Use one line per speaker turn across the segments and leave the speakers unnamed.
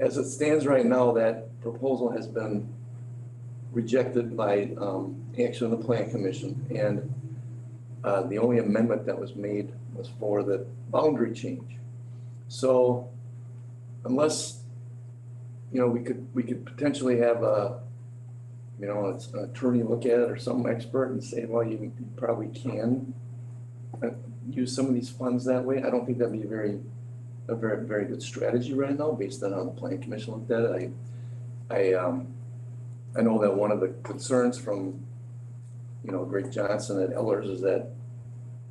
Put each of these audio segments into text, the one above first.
As it stands right now, that proposal has been rejected by um, action of the plan commission. And uh, the only amendment that was made was for the boundary change. So unless, you know, we could, we could potentially have a, you know, it's an attorney look at it or some expert and say, well, you you probably can uh, use some of these funds that way. I don't think that'd be a very, a very, very good strategy right now, based on how the plan commission looked at it. I, I, um, I know that one of the concerns from, you know, Greg Johnson at Ellers is that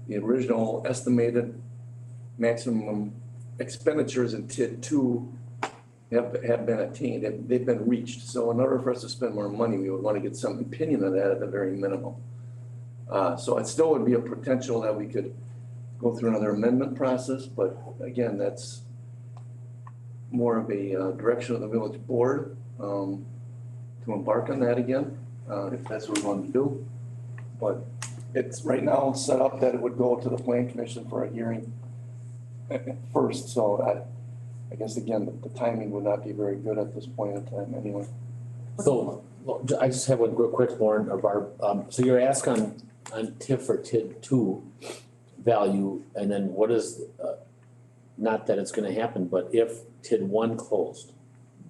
the original estimated maximum expenditures in TID two have, have been attained, have- they've been reached. So in order for us to spend more money, we would want to get some opinion of that at the very minimum. Uh, so it still would be a potential that we could go through another amendment process, but again, that's more of a uh, direction of the village board, um, to embark on that again, uh, if that's what we want to do. But it's right now set up that it would go to the plan commission for a hearing uh, first, so I, I guess again, the- the timing would not be very good at this point in time anyway.
So, well, ju- I just have one real quick, Lauren or Barb, um, so you're asking on, on TIF or TID two value, and then what is, uh, not that it's gonna happen, but if TID one closed,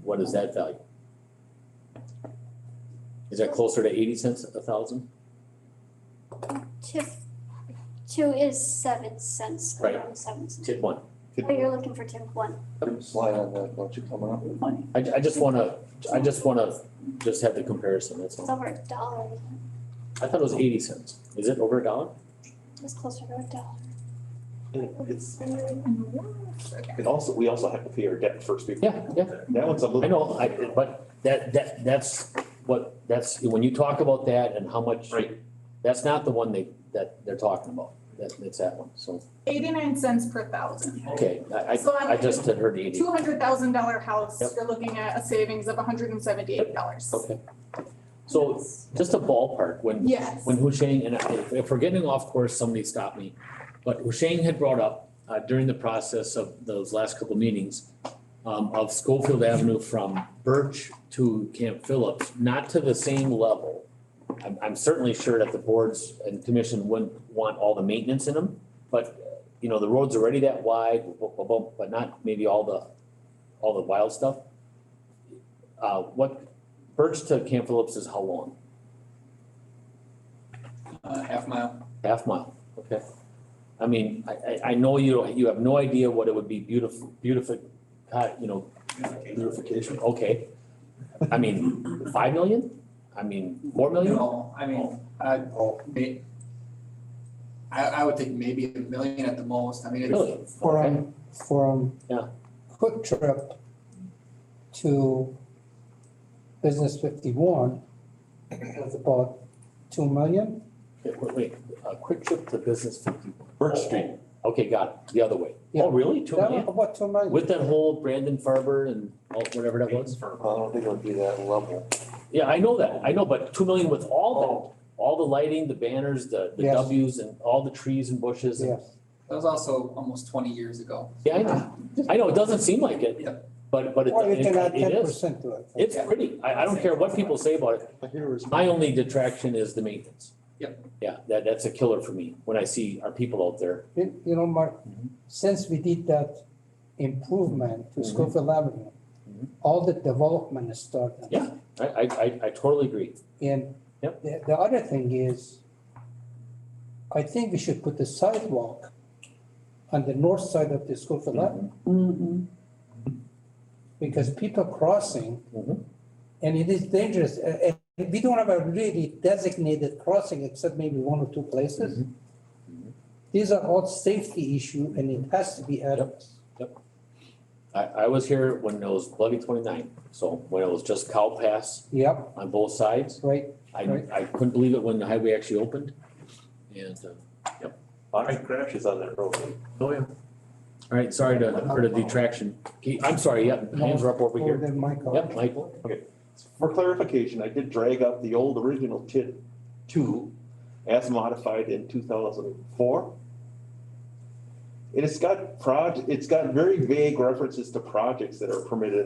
what is that value? Is that closer to eighty cents a thousand?
TIF two is seven cents,
Right.
around seven cents.
TID one,
Oh, you're looking for TIF one.
Slide on that, why don't you come up?
I, I just wanna, I just wanna just have the comparison, that's
It's
all.
over a dollar. isn't
I thought it was eighty cents, is it over a dollar?
it? It's closer to a dollar.
It's, it also, we also have to pay our debt first before.
Yeah, yeah.
That one's a little.
I know, I, but that, that, that's what, that's, when you talk about that and how much.
Right.
That's not the one they, that they're talking about, that, it's that one, so,
Eighty-nine cents per thousand.
okay, I,
So
I, I
on
just had heard eighty.
Two hundred thousand dollar house,
Yep.
you're looking at a savings of hundred and seventy-eight dollars.
Okay. So, just a ballpark, when,
Yes.
when Husheng, and I- if- if we're getting off course, somebody stop me. But Husheng had brought up uh, during the process of those last couple meetings um, of Schofield Avenue from Birch to Camp Phillips, not to the same level. I'm, I'm certainly sure that the boards and commission wouldn't want all the maintenance in them, but, you know, the road's already that wide, bu- bu- bu- but not maybe all the, all the wild stuff. Uh, What, Birch to Camp Phillips is how long?
Uh, half mile.
Half mile, okay. I mean, I, I, I know you, you have no idea what it would be beautiful, beautiful, uh, you know, beautification, okay. I mean, five million? I mean, four million? Oh.
No, I mean, I, may, I, I would think maybe a million at the most, I mean,
Really?
it's,
Okay.
from, from.
Yeah.
Quick Trip to Business fifty-one was about two million.
Wait, Wait, wait, a quick trip to business fifty-one.
Birch Street.
Okay, got it, the other way.
Yeah.
Oh, really? Two
That was
million?
about two million.
With that whole Brandon Farber and all, whatever that was?
I don't think it would be that level.
Yeah, I know that, I know, but two million with all that, all the lighting, the banners, the, the
Yes.
W's and all the trees and bushes and
Yes,
that was also almost twenty years ago.
Yeah, I know, I know, it doesn't seem like it,
Yeah.
but, but it,
or you
it-
can add
it
ten
is.
percent to it.
It's pretty, I, I don't care what people say about it, my only detraction is the maintenance.
Yep.
Yeah, that, that's a killer for me, when I see our people out there,
You you know, Mark,
Mm-hmm.
since we did that improvement to
Mhm.
Schofield Avenue,
Mhm.
all the development is started.
Yeah. I, I, I, I totally agree.
And
Yep.
the, the other thing is, I think we should put the sidewalk on the north side of the Schofield
Mm-hmm.
Avenue. Because people crossing,
Mhm.
and it is dangerous, uh, and we don't have a really designated crossing except maybe one or two places. Mm-hmm. These are all safety issue and it has to be addressed.
I, I was here when it was bloody twenty-nine, so when it was just cow pass
Yep,
on both sides,
right,
I,
Right.
I couldn't believe it when the highway actually opened. And, uh,
lot of crashes on that road.
oh yeah. All right, sorry to, for the detraction, Keith, I'm sorry, yeah, hands are up over
over
here,
there, Michael.
yep, Michael.
For clarification, I did drag up the old original TID two as modified in two thousand and four. And it's got proj, it's got very vague references to projects that are permitted